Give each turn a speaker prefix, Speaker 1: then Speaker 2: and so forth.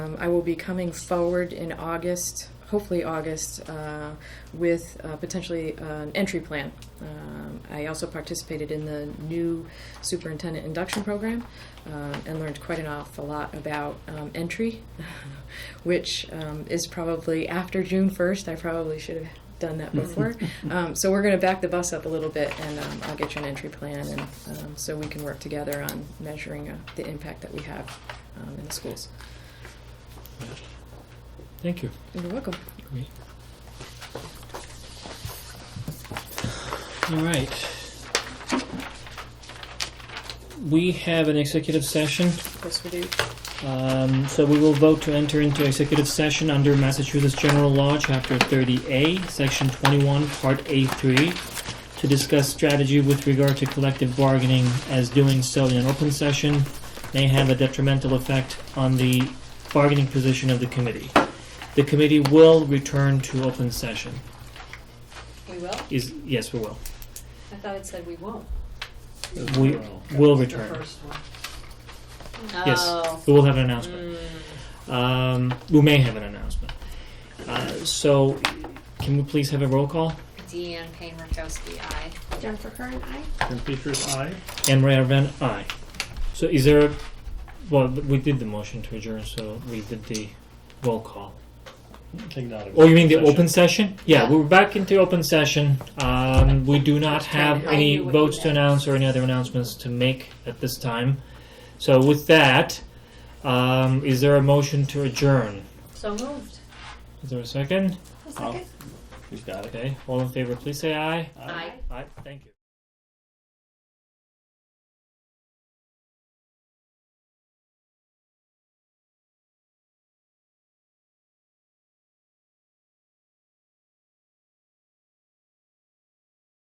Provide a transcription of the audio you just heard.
Speaker 1: Um, I will be coming forward in August, hopefully August, uh, with uh, potentially uh, an entry plan. Um, I also participated in the new superintendent induction program uh, and learned quite an awful lot about um, entry, which um, is probably after June 1st. I probably should have done that before. um, so we're going to back the bus up a little bit, and um, I'll get you an entry plan, and um, so we can work together on measuring uh, the impact that we have um, in the schools.
Speaker 2: Thank you.
Speaker 1: You're welcome.
Speaker 2: Great. All right. We have an executive session,
Speaker 1: Yes, we do.
Speaker 2: um, so we will vote to enter into executive session under Massachusetts General Law, Chapter 30A, Section 21, Part A3, to discuss strategy with regard to collective bargaining, as doing so in an open session may have a detrimental effect on the bargaining position of the committee. The committee will return to open session.
Speaker 3: We will?
Speaker 2: Is, yes, we will.
Speaker 3: I thought it said we won't.
Speaker 2: We will
Speaker 3: The
Speaker 2: return.
Speaker 3: first one.
Speaker 2: Yes,
Speaker 3: Oh.
Speaker 2: we will have an announcement.
Speaker 3: Mm.
Speaker 2: Um, we may have an announcement. Uh, so, can we please have a roll call?
Speaker 3: Deanne Payne Rakowski, aye.
Speaker 4: Jennifer Kern, aye.
Speaker 5: And Peters, aye.
Speaker 2: Anne Marie Van aye. So is there, a, well, we did the motion to adjourn, so we did the roll call.
Speaker 5: Take that.
Speaker 2: Oh, you mean the open session? Yeah,
Speaker 3: Yeah.
Speaker 2: we're back into open session. Um, we do not have
Speaker 3: I
Speaker 2: any
Speaker 3: knew what you
Speaker 2: votes to
Speaker 3: meant.
Speaker 2: announce or any other announcements to make at this time. So with that, um, is there a motion to adjourn?
Speaker 3: So moved.
Speaker 2: Is there a second?
Speaker 4: A second?
Speaker 5: He's got it.
Speaker 2: Okay, all in favor, please say aye.
Speaker 3: Aye.
Speaker 2: Aye, thank you.